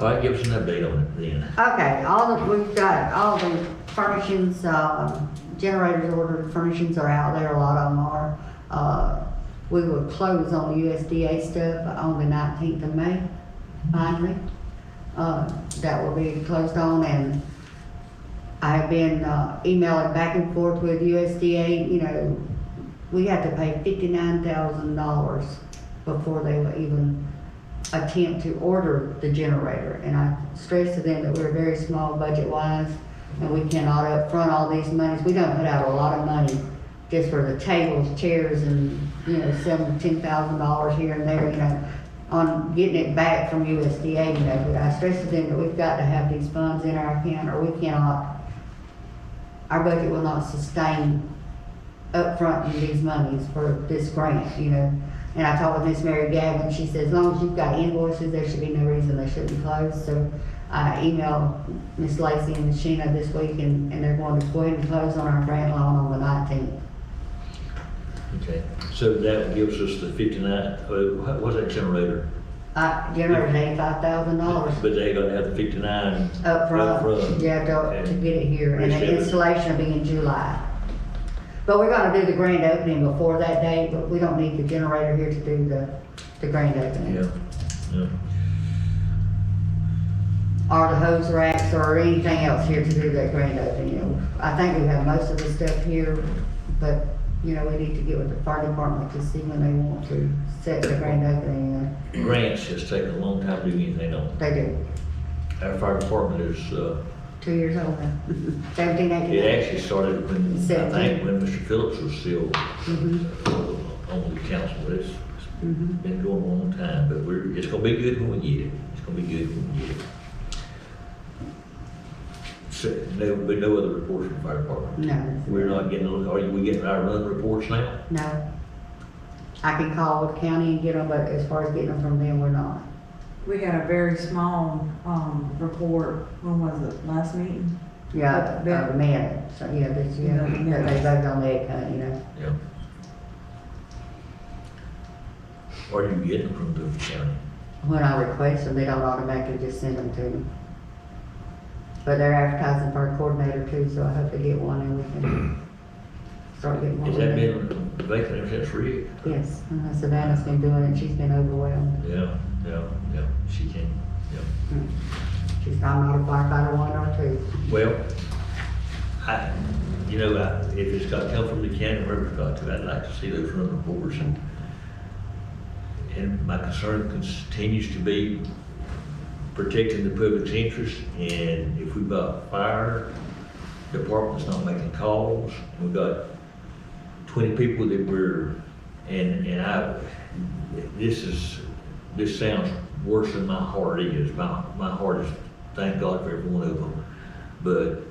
All right, give us an update on it then. Okay, all the, we've got all the furnishings, uh, generators ordered, furnishings are out there, a lot of them are. Uh, we will close on USDA stuff on the nineteenth of May, finally. Uh, that will be closed on and I have been uh, emailing back and forth with USDA, you know, we had to pay fifty-nine thousand dollars before they would even attempt to order the generator. And I stressed to them that we're very small budget-wise, and we cannot upfront all these monies. We don't put out a lot of money just for the tables, chairs, and, you know, seven, ten thousand dollars here and there, you know, on getting it back from USDA, you know, but I stressed to them that we've got to have these funds in our account, or we cannot, our budget will not sustain upfronting these monies for this grant, you know. And I talked with Miss Mary Gavin, she said, as long as you've got invoices, there should be no reason they shouldn't close, so I emailed Miss Lacy and Miss Sheena this week, and, and they're going to go ahead and close on our grant loan on the nineteenth. Okay, so that gives us the fifty-nine, uh, what- what's that generator? I generated eighty-five thousand dollars But they gonna have the fifty-nine. upfront, yeah, to, to get it here, and the installation will be in July. But we're gonna do the grand opening before that date, but we don't need the generator here to do the, the grand opening. Yeah, yeah. or the hose racks or anything else here to do that grand opening. You know, I think we have most of the stuff here, but, you know, we need to get with the fire department to see when they want to set the grand opening. uh, Grants has taken a long time to do anything on. They do, Our fire department is, uh, two years old now, seventeen, It eighteen. actually started when, I think, when Mr. Phillips was still Mhm. uh, on the council. It's it's Mhm. been going a long time, but we're, it's gonna be good when we get it. It's gonna be good when we get it. So, no, but no other reports from the fire department? No, We're not getting, are we getting our run reports now? no. I can call the county and get them, but as far as getting them from them, we're not. We had a very small, um, report, when was it, last meeting? Yeah, But- the man, so, yeah, this year, No, no. that they voted on that, uh, you know. Yeah. Are you getting them from the county? When I request them, they don't automatically just send them to me. But they're advertising for a coordinator too, so I hope to get one and we can start getting one. Has that been vacant ever since Rick? Yes, uh, Savannah's been doing it, she's been overwhelmed. Yeah, yeah, yeah, she can, yeah. She's not a firefighter one or two. Well, I, you know, I, if it's got to come from the county, wherever it's got to, I'd like to see those run reports. And- And my concern continues to be protecting the public's interest, and if we've got fire departments not making calls, we've got twenty people that were, and, and I, this is, this sounds worse than my heart is, my, my heart is, thank God for every one of them. But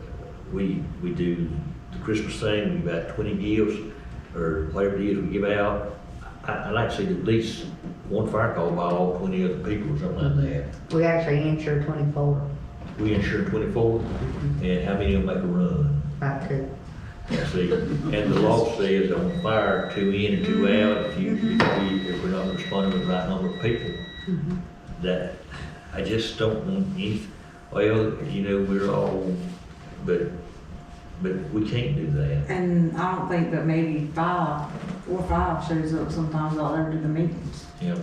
we, we do the Christmas thing, we've got twenty gifts, or whatever it is we give out. I, I'd like to see at least one fire call by all twenty other people or something like that. We actually insure twenty-four, We insure twenty-four, and how many of them make a run? about two. You See, and the law says on fire, two in and two out, if you, if we, if we're not responding with the right number of people, that, I just don't want any, well, you know, we're all, but, but we can't do that. And I don't think that maybe five, four or five shows up sometimes all over to the meetings. Yeah,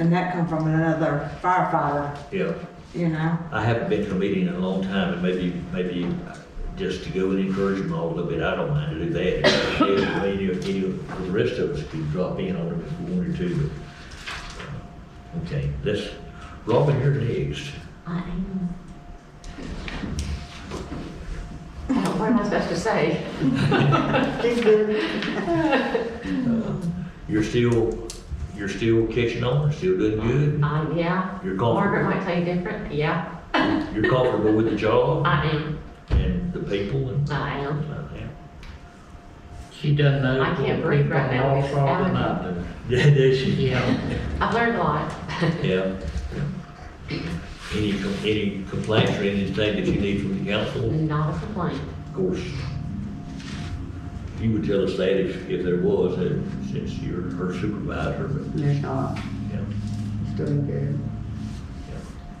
And that come from another firefighter, yeah. you know? I haven't been to a meeting in a long time, and maybe, maybe uh, just to go and encourage them all a little bit, I don't mind to do that. Yeah, Any, of- any, of the rest of us could drop in on it if we wanted to, but, uh, okay, let's, Robin, you're next. I am. What am I supposed to say? She's good. You're still, you're still catching on, still doing good, Uh, yeah. You're gone. Margaret might tell you different. Yeah, you're comfortable with the job I am. and the people and. uh, I am. She doesn't know. I can't breathe right now. More fraud than I do. Yeah, that's you. Yeah, I've learned a lot. Yeah. Any, com- any complaints or anything that you need from the council? Not a complaint. Of course, you would tell us that if, if there was, and since you're her supervisor, but, There's not, yeah. it's doing good.